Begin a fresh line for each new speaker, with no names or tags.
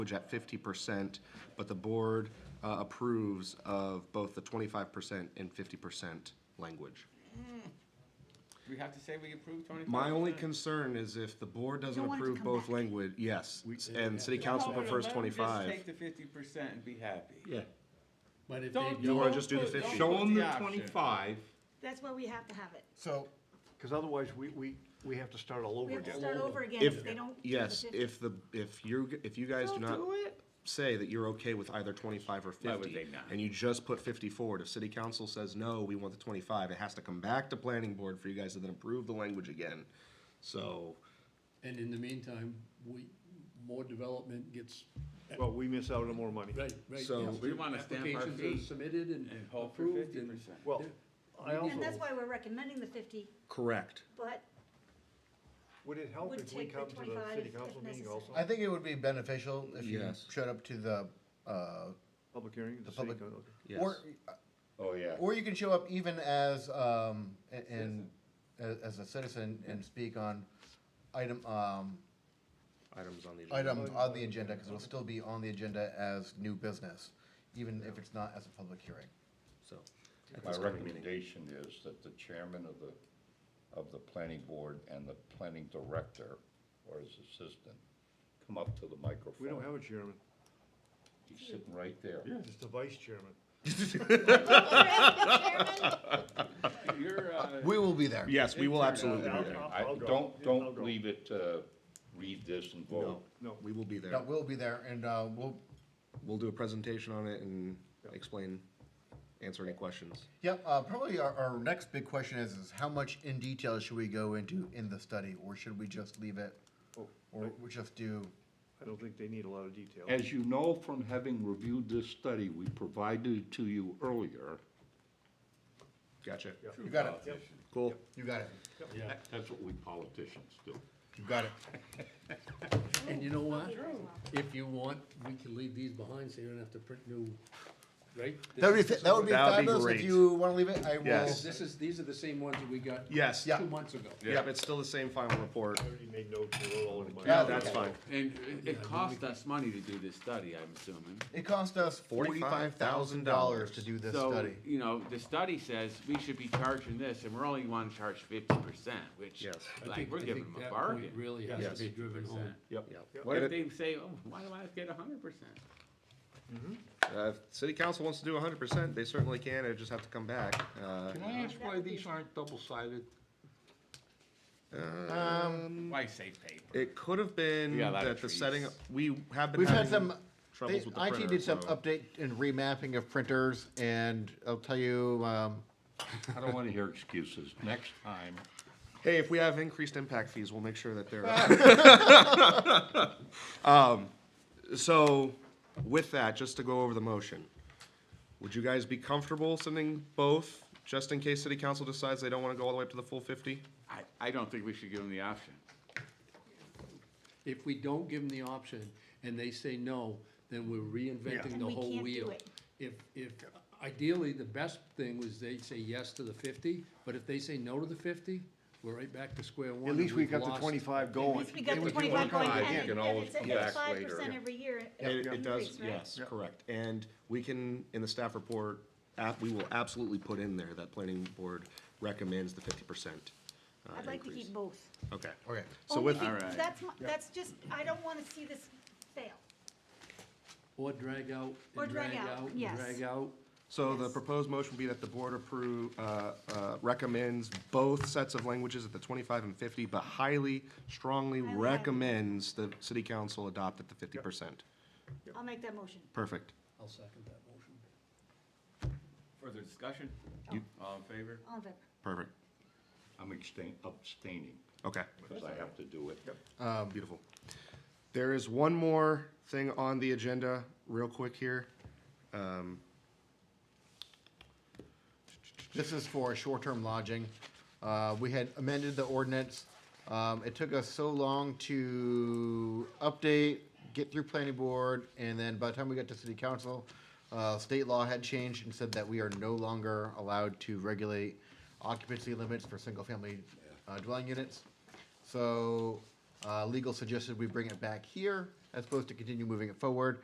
language at fifty percent, but the board uh, approves of both the twenty-five percent and fifty percent language.
We have to say we approve twenty-five
My only concern is if the board doesn't
Don't want it to
approve
come
both
back.
language, yes, and city council prefers
Just take
twenty-five.
the fifty percent and be happy.
Yeah,
But if
Don't-
they
you wanna
Don't
don't,
just do the
put- don't
fifty?
put
Show them
the
the
option.
twenty-five.
That's why we have to have it.
So, because otherwise, we, we, we have to start all
We
over
have to
again.
start over again if
If,
they don't. do the
yes,
50.
if the, if you, if you guys do
Don't
not
do it.
say that you're okay with either twenty-five or
Why would
fifty,
they not?
and you just put fifty forward, if city council says, no, we want the twenty-five, it has to come back to planning board for you guys to then approve the language again. So,
and in the meantime, we, more development gets,
Well, we miss out on more money.
right, right.
So-
yes,
We wanna stamp our
applications are
feet
Submitted and
And hope for
approved
fifty
and.
percent.
Well, I also,
And that's why we're recommending the fifty,
correct.
but
would it help
would
if we
take the
come to the
25
city
if
council meeting
necessary.
also?
I think it would be beneficial if you
Yes.
showed up to the, uh,
Public hearing, the city
public-
council.
or,
Oh, yeah.
or you can show up even as, um, a- and, a- as a citizen and speak on item, um,
Items on the. agenda.
item on the agenda, because it'll still be on the agenda as new business, even if it's not as a public hearing.
So. at
My
this coming meeting.
recommendation is that the chairman of the, of the planning board and the planning director or his assistant come up to the microphone.
We don't have a chairman,
He's sitting right there.
just a vice chairman.
You're, uh,
We will be there.
Yes, we will absolutely
I'll-
be there.
I'll-
I,
I'll go.
don't,
I'll go.
don't leave it, uh, read this and vote.
No.
We will be there.
No, we'll be there, and, uh, we'll,
We'll do a presentation on it and
Yeah.
explain, answer any questions.
Yep, uh, probably our, our next big question is, is how much in detail should we go into in the study, or should we just leave it?
Oh,
Or we just do,
I don't think they need a lot of detail.
As you know from having reviewed this study we provided to you earlier,
Gotcha.
you got it,
Cool.
you got it,
that's what we politicians do.
you got it.
And you know what? If you want, we can leave these behind, so you don't have to print new, right?
That would be, that would be
That would be
fabulous,
great.
if you wanna leave it, I will,
Yes.
This is, these are the same ones that we got
Yes.
Yeah.
two months ago.
Yep, it's still the same final report.
I already made notes, they're all in my.
Yeah,
That's
Okay.
fine.
and it- it cost us money to do this study, I'm assuming.
it cost us forty-five thousand dollars to do this
So,
study.
you know, the study says we should be charging this, and we're only wanting to charge fifty percent, which,
Yes.
I
like,
think-
we're
I
giving
think
them a
that point
bargain.
Really has
Yes.
to be driven home.
Yep.
What
And
if
it-
they say, oh, why do I get a hundred percent?
Uh, if city council wants to do hundred percent, they certainly can, it just have to come back. Uh,
Can I ask why these aren't double-sided?
Why say paper?
It could have been
We got a lot of
that the
trees.
setting, we have been
We've had
having
some, they,
troubles with the
IT
printer,
did some
so
update and remapping of printers, and I'll tell you, um,
I don't want to hear excuses. Next time,
Hey, if we have increased impact fees, we'll make sure that they're. Um, so with that, just to go over the motion, would you guys be comfortable sending both, just in case city council decides they don't wanna go all the way up to the full fifty?
I, I don't think we should give them the option.
If we don't give them the option and they say no, then we're reinventing
Then
the
we
whole
can't do
wheel.
it.
If, if, ideally, the best thing was they say yes to the fifty, but if they say no to the fifty, we're right back to square one.
At
and
least we
we've
got the
lost-
twenty-five
at
going.
least we got
It
the
would be
twenty-five going
archived.
and
You
it-
can
and
always
it's,
come
and it's
back
five
later,
percent
yeah.
every year.
It, it does,
increase, right?
yes, correct. And we can, in the staff report, app, we will absolutely put in there that planning board recommends the fifty percent. uh,
I'd like to keep both.
Okay.
okay.
So
Only
with,
be-
Alright.
That's, my- that's just, I don't wanna see this fail.
Or drag out,
Or
and
drag
drag
out,
out, and
yes.
drag out.
so the
Yes.
proposed motion would be that the board approve, uh, uh, recommends both sets of languages at the twenty-five and fifty, but highly, strongly
Highly, highly.
recommends the city council adopt at the fifty percent.
I'll make that motion.
Perfect.
I'll second that motion.
Further discussion?
You-
All in favor?
All in favor?
Perfect.
I'm abstain- abstaining
Okay. um,
because I have to do it.
Beautiful. There is one more thing on the agenda, real quick here. Um,
This is for short-term lodging. Uh, we had amended the ordinance. Um, it took us so long to update, get through planning board, and then by the time we got to city council, uh, state law had changed and said that we are no longer allowed to regulate occupancy limits for single-family uh, dwelling units. So, uh, legal suggested we bring it back here. as opposed to continue moving it forward.